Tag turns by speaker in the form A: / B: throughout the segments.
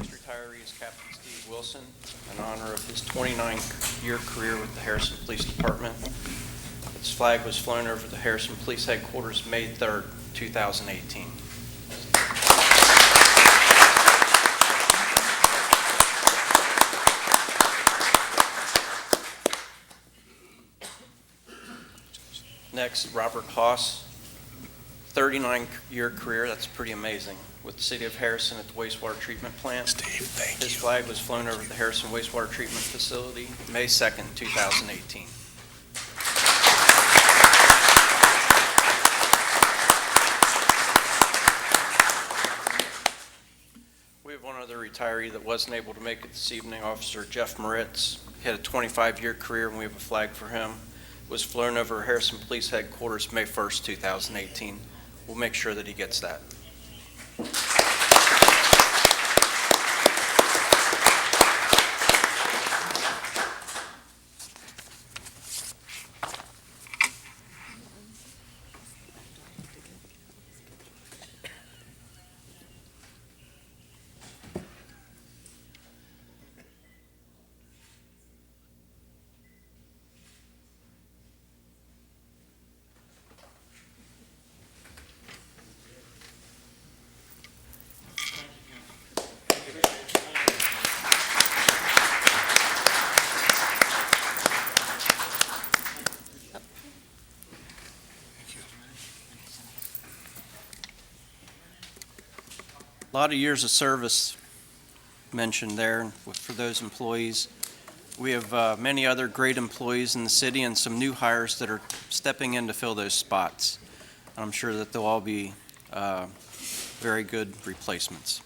A: is Captain Steve Wilson in honor of his 29-year career with the Harrison Police Department. Its flag was flown over the Harrison Police Headquarters May 3rd, 2018. Next, Robert Haas, 39-year career, that's pretty amazing, with the City of Harrison at the wastewater treatment plant.
B: Steve, thank
A: His flag was flown over the Harrison wastewater treatment facility, May 2nd, 2018. We have one other retiree that wasn't able to make it this evening, Officer Jeff Moritz. He had a 25-year career, and we have a flag for him. Was flown over Harrison Police Headquarters, May 1st, 2018. We'll make sure that he gets that. A lot of years of service mentioned there for those employees. We have uh, many other great employees in the city and some new hires that are stepping in to fill those spots. And I'm sure that they'll all be uh, very good replacements.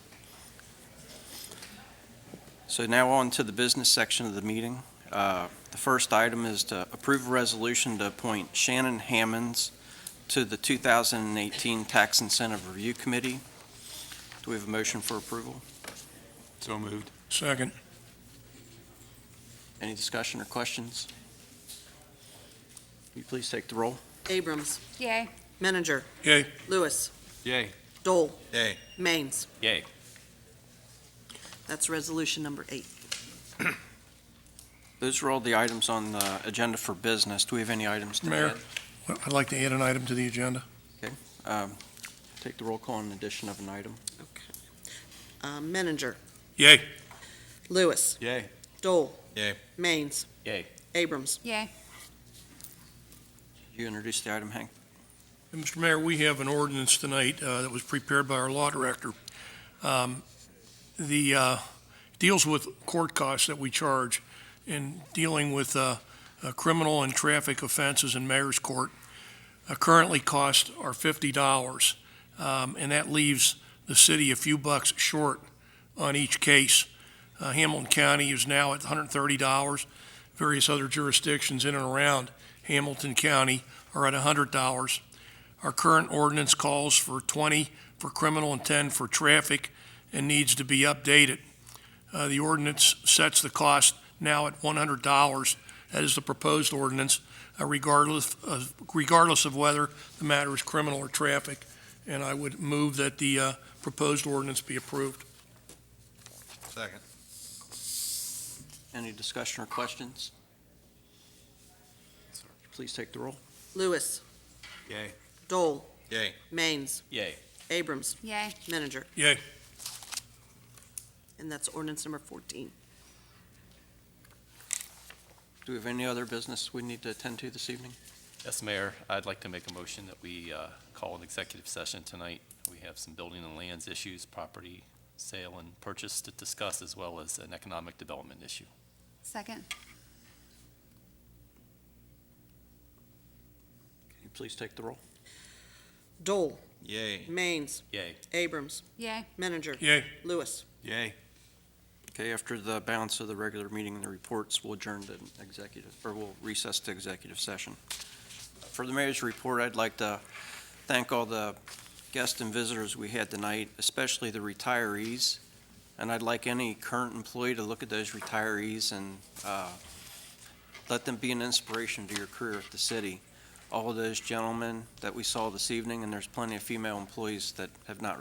A: So now on to the business section of the meeting. Uh, The first item is to approve a resolution to appoint Shannon Hammonds to the 2018 Tax Incentive Review Committee. Do we have a motion for approval?
B: So moved. Second.
A: Any discussion or questions? Will you please take the roll?
C: Abrams.
D: Yay.
C: Menninger.
B: Yay.
C: Lewis.
B: Yay.
C: Dole.
B: Yay.
C: Mainz.
B: Yay.
C: That's resolution number eight.
A: Those are all the items on the agenda for business. Do we have any items to
B: Mayor.
A: add?
B: Well, I'd like to add an item to the agenda.
A: Um, Take the roll call on addition of an item.
C: Uh, Menninger.
B: Yay.
C: Lewis.
B: Yay.
C: Dole.
B: Yay.
C: Mainz.
B: Yay.
C: Abrams.
D: Yay.
A: You introduced the item, Hank.
E: Mr. Mayor, we have an ordinance tonight uh, that was prepared by our law director. Um, The, uh, deals with court costs that we charge in dealing with uh, uh, criminal and traffic offenses in mayor's court. uh, Currently costs are fifty dollars, Um, and that leaves the city a few bucks short on each case. Uh, Hamilton County is now at hundred and thirty dollars. Various other jurisdictions in and around Hamilton County are at hundred dollars. Our current ordinance calls for 20 for criminal and 10 for traffic and needs to be updated. Uh, The ordinance sets the cost now at $100. That is the proposed ordinance, uh, regardless, of- regardless of whether the matter is criminal or traffic. And I would move that the uh, proposed ordinance be approved.
B: Second.
A: Any discussion or questions? Please take the roll.
C: Lewis.
B: Yay.
C: Dole.
B: Yay.
C: Mainz.
B: Yay.
C: Abrams.
D: Yay.
C: Menninger.
E: Yay.
C: And that's ordinance number 14.
A: Do we have any other business we need to attend to this evening?
F: Yes, Mayor, I'd like to make a motion that we uh, call an executive session tonight. We have some building and lands issues, property sale and purchase to discuss, as well as an economic development issue.
D: Second.
A: Can you please take the roll?
C: Dole.
B: Yay.
C: Mainz.
F: Yay.
C: Abrams.
D: Yay.
C: Menninger.
E: Yay.
C: Lewis.
B: Yay.
A: Okay, after the balance of the regular meeting and the reports, we'll adjourn to executive, or we'll recess to executive session. For the mayor's report, I'd like to thank all the guests and visitors we had tonight, especially the retirees. And I'd like any current employee to look at those retirees and uh, let them be an inspiration to your career at the city. All of those gentlemen that we saw this evening, and there's plenty of female employees that have not